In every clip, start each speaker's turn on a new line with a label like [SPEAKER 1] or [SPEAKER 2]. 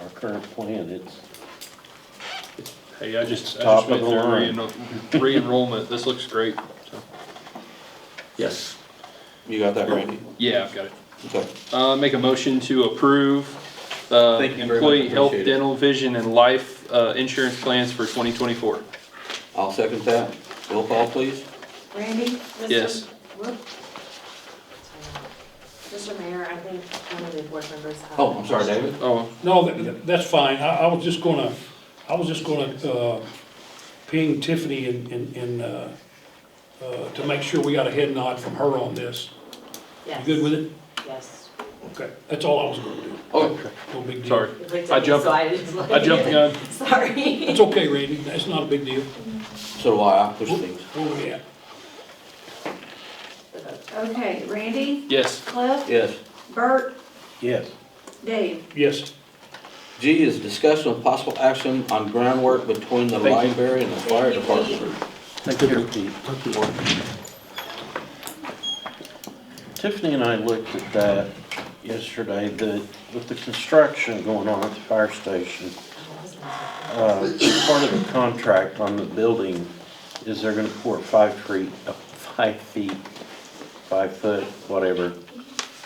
[SPEAKER 1] our current plan, it's,
[SPEAKER 2] Hey, I just, I
[SPEAKER 1] Top of
[SPEAKER 2] just went
[SPEAKER 1] the
[SPEAKER 2] through
[SPEAKER 1] line.
[SPEAKER 2] reenroll- re-enrollment, this looks great, so,
[SPEAKER 3] Yes.
[SPEAKER 4] You got that, Randy?
[SPEAKER 2] yeah, I've got it.
[SPEAKER 4] Okay.
[SPEAKER 2] Uh, make a motion to approve the
[SPEAKER 3] Thank you very much,
[SPEAKER 2] employee health,
[SPEAKER 3] appreciate it.
[SPEAKER 2] dental, vision, and life, uh, insurance plans for twenty twenty-four.
[SPEAKER 4] I'll second that. Roll call, please.
[SPEAKER 5] Randy?
[SPEAKER 2] Yes.
[SPEAKER 5] Mr. Whoop. Mr. Mayor, I think one of the board members. have-
[SPEAKER 4] Oh, I'm sorry, David.
[SPEAKER 2] Oh,
[SPEAKER 6] No, th- th- that's fine, I, I was just gonna, I was just gonna, uh, ping Tiffany and, and, and, uh, uh, to make sure we got a head nod from her on this. You
[SPEAKER 5] Yes.
[SPEAKER 6] good with it?
[SPEAKER 5] Yes.
[SPEAKER 6] Okay, that's all I was gonna do,
[SPEAKER 4] Okay.
[SPEAKER 6] no big deal.
[SPEAKER 2] sorry,
[SPEAKER 5] It looked
[SPEAKER 2] I
[SPEAKER 5] at me,
[SPEAKER 2] jumped-
[SPEAKER 5] so I just looked
[SPEAKER 2] I jumped the
[SPEAKER 5] at
[SPEAKER 2] gun.
[SPEAKER 5] it. Sorry.
[SPEAKER 6] It's okay, Randy, that's not a big deal.
[SPEAKER 4] So do I. I push things.
[SPEAKER 6] Oh, yeah.
[SPEAKER 7] Okay, Randy,
[SPEAKER 2] Yes.
[SPEAKER 7] Cliff,
[SPEAKER 4] Yes.
[SPEAKER 7] Bert,
[SPEAKER 1] yes.
[SPEAKER 7] Dave.
[SPEAKER 6] Yes,
[SPEAKER 4] G is discussion of possible action on groundwork between the
[SPEAKER 2] Thank you.
[SPEAKER 4] library and the fire department.
[SPEAKER 1] Thank you, Pete. Tiffany and I looked at that yesterday, the, with the construction going on at the fire station. uh, Part of the contract on the building is they're gonna pour five feet, uh, five feet, five foot, whatever,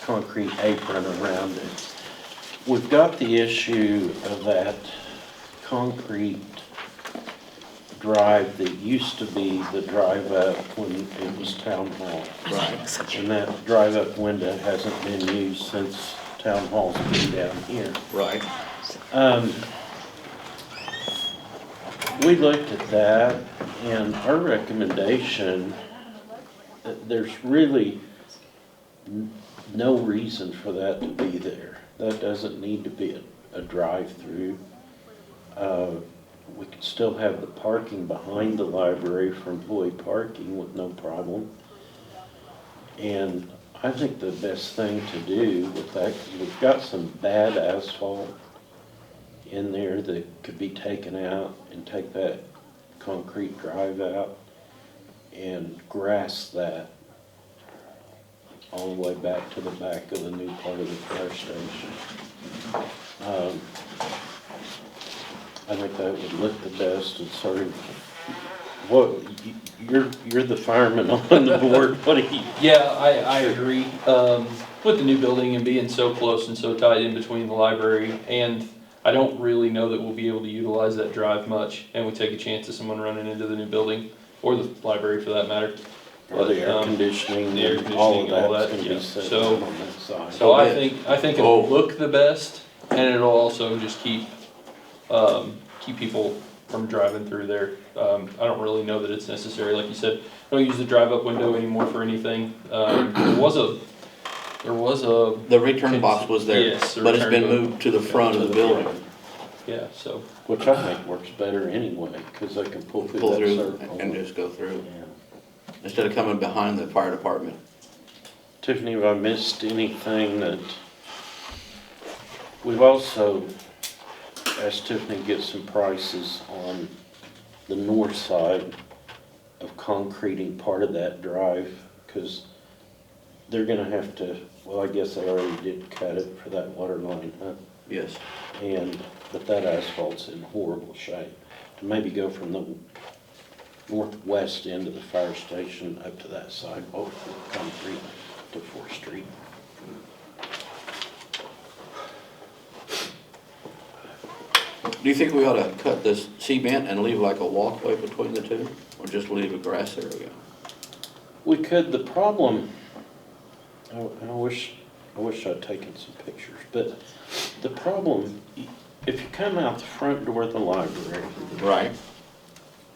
[SPEAKER 1] concrete apron around it. We've got the issue of that concrete drive that used to be the drive up when it was town hall. Right. And that drive up window hasn't been used since town hall's been down here.
[SPEAKER 4] Right.
[SPEAKER 1] Um, we looked at that and our recommendation, uh, there's really n- no reason for that to be there. That doesn't need to be a, a drive-through. Uh, we could still have the parking behind the library for employee parking with no problem. And I think the best thing to do with that, 'cause we've got some bad asphalt in there that could be taken out and take that concrete drive out and grass that all the way back to the back of the new part of the fire station. Um, I think that would look the best and sort of, what, y- you're, you're the fireman on the board, what do you?
[SPEAKER 2] Yeah, I, I agree. Um, with the new building and being so close and so tight in between the library and I don't really know that we'll be able to utilize that drive much and we take a chance of someone running into the new building or the library for that matter.
[SPEAKER 1] Or the air
[SPEAKER 2] Um,
[SPEAKER 1] conditioning
[SPEAKER 2] the air
[SPEAKER 1] and all
[SPEAKER 2] conditioning, all
[SPEAKER 1] of that's
[SPEAKER 2] that,
[SPEAKER 1] gonna be
[SPEAKER 2] yeah.
[SPEAKER 1] set
[SPEAKER 2] So-
[SPEAKER 1] on that side.
[SPEAKER 2] So I think, I think
[SPEAKER 4] Oh.
[SPEAKER 2] it'll look the best and it'll also just keep, um, keep people from driving through there. Um, I don't really know that it's necessary, like you said, don't use the drive-up window anymore for anything. Um, there was a, there was a
[SPEAKER 4] The return box was there,
[SPEAKER 2] Yes, the
[SPEAKER 4] but it's
[SPEAKER 2] return
[SPEAKER 4] been
[SPEAKER 2] box.
[SPEAKER 4] moved to the front of the building.
[SPEAKER 2] Yeah, so,
[SPEAKER 1] Which I think works better anyway, because they can pull through
[SPEAKER 4] Pull
[SPEAKER 1] that
[SPEAKER 4] through
[SPEAKER 1] circle.
[SPEAKER 4] and just go through,
[SPEAKER 1] Yeah.
[SPEAKER 4] instead of coming behind the fire department.
[SPEAKER 1] Tiffany, have I missed anything that, we've also asked Tiffany to get some prices on the north side of concreting part of that drive, because they're gonna have to, well, I guess they already did cut it for that water line, huh?
[SPEAKER 4] Yes.
[SPEAKER 1] And, but that asphalt's in horrible shape. To maybe go from the northwest end of the fire station up to that side, over the concrete to Fourth Street.
[SPEAKER 4] Do you think we ought to cut this cement and leave like a walkway between the two? Or just leave a grass area?
[SPEAKER 1] We could, the problem, I, I wish, I wish I'd taken some pictures, but the problem, if you come out the front door of the library,
[SPEAKER 4] Right.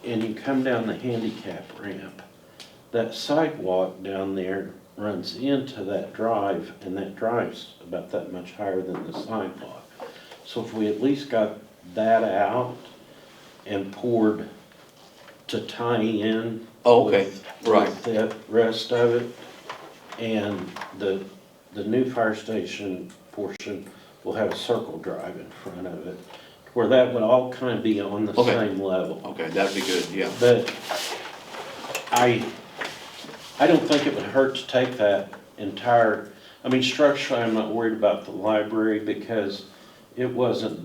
[SPEAKER 1] and you come down the handicap ramp, that sidewalk down there runs into that drive, and that drive's about that much higher than the sidewalk. So if we at least got that out and poured to tie in.
[SPEAKER 4] Oh, okay,
[SPEAKER 1] with-
[SPEAKER 4] right.
[SPEAKER 1] with The rest of it, and the, the new fire station portion will have a circle drive in front of it, where that would all kind of be on the
[SPEAKER 4] Okay.
[SPEAKER 1] same level.
[SPEAKER 4] Okay, that'd be good, yeah.
[SPEAKER 1] But I, I don't think it would hurt to take that entire, I mean, structurally, I'm not worried about the library because it wasn't